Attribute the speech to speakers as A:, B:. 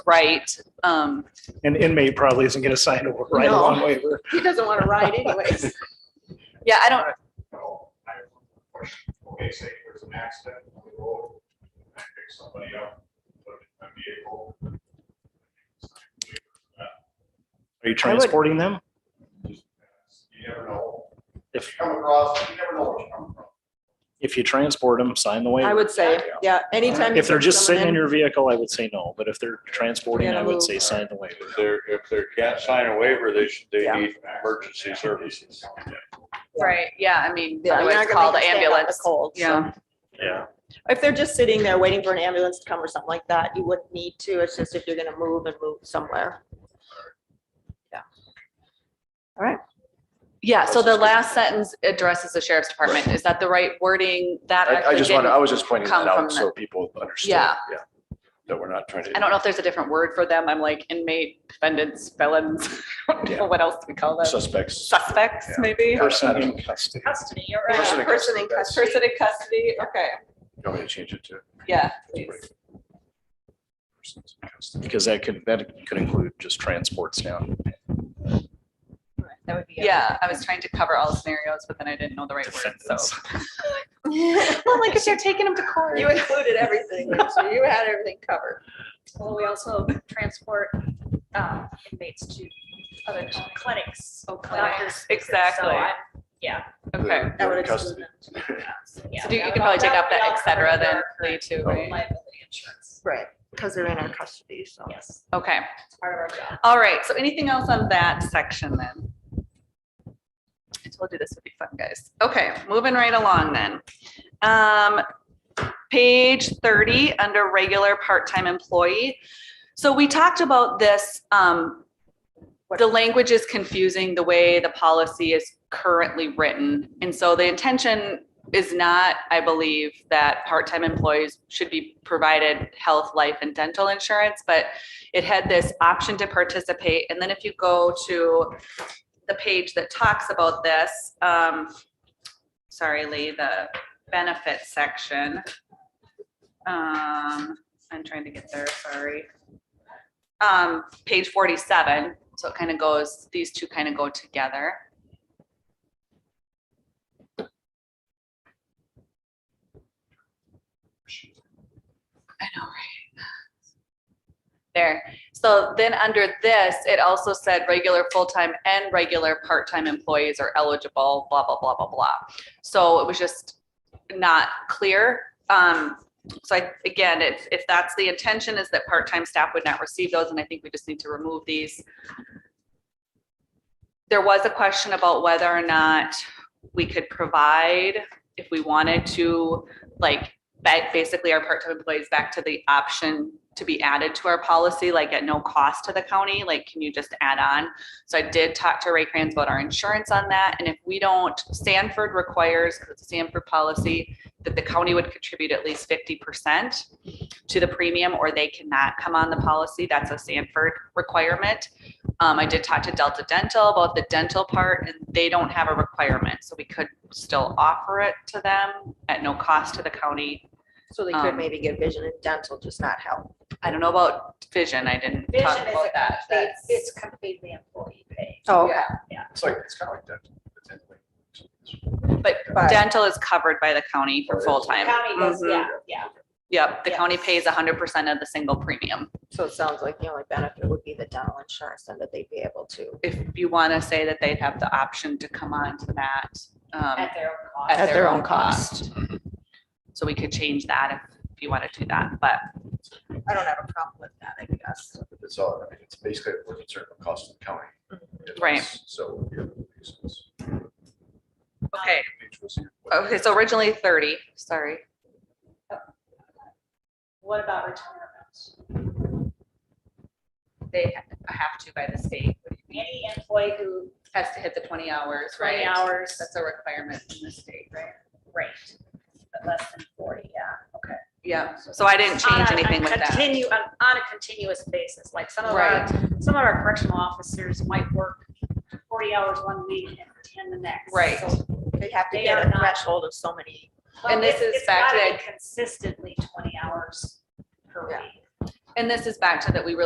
A: right. Um,
B: An inmate probably isn't going to sign a right
C: No.
B: along waiver.
C: He doesn't want to ride anyways.
A: yeah, I don't,
D: Okay, say there's an accident on the road, and I pick somebody up, put them in a vehicle.
B: Are you transporting them?
D: You never know.
B: If-
D: You come across, you never know what you're coming from.
B: If you transport them, sign the
C: I
B: waiver.
C: would say, yeah, anytime. you
B: If they're
C: put
B: just
C: someone
B: sitting in your vehicle, I would say no, but if they're transporting,
C: Gotta
B: I would
C: move.
B: say sign the waiver.
E: If they're, if they can't sign a waiver, they should, they
C: Yeah.
E: need emergency services.
A: right, yeah, I mean,
C: Yeah, you're
A: otherwise
C: not gonna
A: call the
C: make them stand out in
A: ambulance.
C: cold, so.
A: Yeah,
E: Yeah.
C: If they're just sitting there waiting for an ambulance to come or something like that, you wouldn't need to. It's just if you're gonna move and move somewhere.
A: yeah, so the last sentence addresses the sheriff's department. Is that the right wording? That
F: I, I
A: actually
F: just wanted,
A: didn't,
F: I was just pointing
A: come
F: that
A: from
F: out
A: the-
F: so people understood.
A: Yeah.
F: That we're not trying to.
A: I don't know if there's a different word for them. I'm like inmate, defendants, felons, I don't know
F: Yeah.
A: what else do we call them?
F: Suspects.
A: Suspects,
F: Yeah.
A: maybe?
F: Yeah.
B: Person in custody.
A: Custody, you're
C: Yeah,
F: Person in
C: person
F: custody,
C: in
F: that's-
C: custody.
A: Person in custody, okay,
F: You want me to change it to?
A: yeah, please.
F: persons in custody? Because that could, that could include just transports now.
G: That would be.
A: Yeah, I was trying to cover all scenarios, but then I didn't know the right word, so.
B: Defendants.
A: Well, like if you're taking them to court.
C: You included everything, so you had everything covered.
G: Well, we also transport um, inmates to other clinics.
A: Oh,
G: doctors,
A: Exactly.
G: so I'm- Yeah.
A: Okay,
F: They're-
C: That would
F: they're in
C: exclude
F: custody.
G: So yeah,
A: so do- you
G: that
A: could probably
G: would all-
A: take
G: that
A: out
G: would
A: that
G: all
A: et cetera
G: cover
A: then,
G: their
A: Lee, too,
G: current
A: right?
G: Liability insurance,
C: Right, because they're in our custody, so.
G: yes,
A: Okay,
G: part of our job.
A: all right, so anything else on that section then? I told you this would be fun, guys. Okay, moving right along then. Um, page thirty, under regular part-time employee. So we talked about this, um, the language is confusing the way the policy is currently written. And so the intention is not, I believe, that part-time employees should be provided health, life, and dental insurance, but it had this option to participate. And then if you go to the page that talks about this, um, sorry, Lee, the benefit section. Um, I'm trying to get there, sorry. Um, page forty-seven, so it kind of goes, these two kind of go together. I know, right? There. So then under this, it also said regular full-time and regular part-time employees are eligible, blah, blah, blah, blah, blah. So it was just not clear. Um, so I, again, if, if that's the intention is that part-time staff would not receive those, and I think we just need to remove these. There was a question about whether or not we could provide, if we wanted to, like, ba- basically our part-time employees back to the option to be added to our policy, like at no cost to the county, like, can you just add on? So I did talk to Ray Kranz about our insurance on that, and if we don't, Sanford requires, because it's a Sanford policy, that the county would contribute at least fifty percent to the premium, or they cannot come on the policy. That's a Sanford requirement. Um, I did talk to Delta Dental about the dental part, and they don't have a requirement, so we could still offer it to them at no cost to the county.
C: So they
A: Um,
C: could maybe get vision and dental, just not health.
A: I don't know about vision, I didn't
G: Vision
A: talk
G: is
A: about
G: a
A: that.
G: complete,
A: That's-
G: it's completely employee paid.
C: Oh,
A: Yeah.
F: It's like, it's kind of like that. but anyway.
A: But
C: But-
A: dental is covered by the county for full-time.
G: County goes,
A: Mhm.
G: yeah, yeah.
A: Yep, the
G: Yes.
A: county pays hundred percent of the single premium.
C: So it sounds like the only benefit would be the dental insurance and that they'd be able to.
A: If you want to say that they'd have the option to come on to that. um,
G: At their own cost.
A: At their own cost. So we could change that if you want to do that, but
C: I don't have a problem with that, I guess.
F: It's all, I mean, it's basically a concern of cost of the county.
A: Right.
F: So. yeah, it makes sense.
G: Um,
A: okay,
F: Page was here.
A: okay, so originally thirty, sorry.
G: What about retirement?
A: They ha- have to by the state,
G: Any employee who
A: has to hit the twenty hours, right?
G: twenty hours,
A: That's a requirement in the state, right?
G: great, but less than forty, yeah.
A: Yeah, so I didn't
G: On
A: change
G: a-
A: anything with that.
G: Continue, on, on a continuous basis, like some of our,
A: Right,
G: some of our correctional officers might work forty hours one week and ten the next.
A: Right.
G: So,
C: They have to
G: They
C: get
G: are
C: a
G: not-
C: threshold of so many
G: well,
A: this
G: it's-
A: is
G: it's
A: back
G: gotta
A: to-
G: be Consistently twenty hours per
C: Yeah.
G: week.
A: and this is back to that we really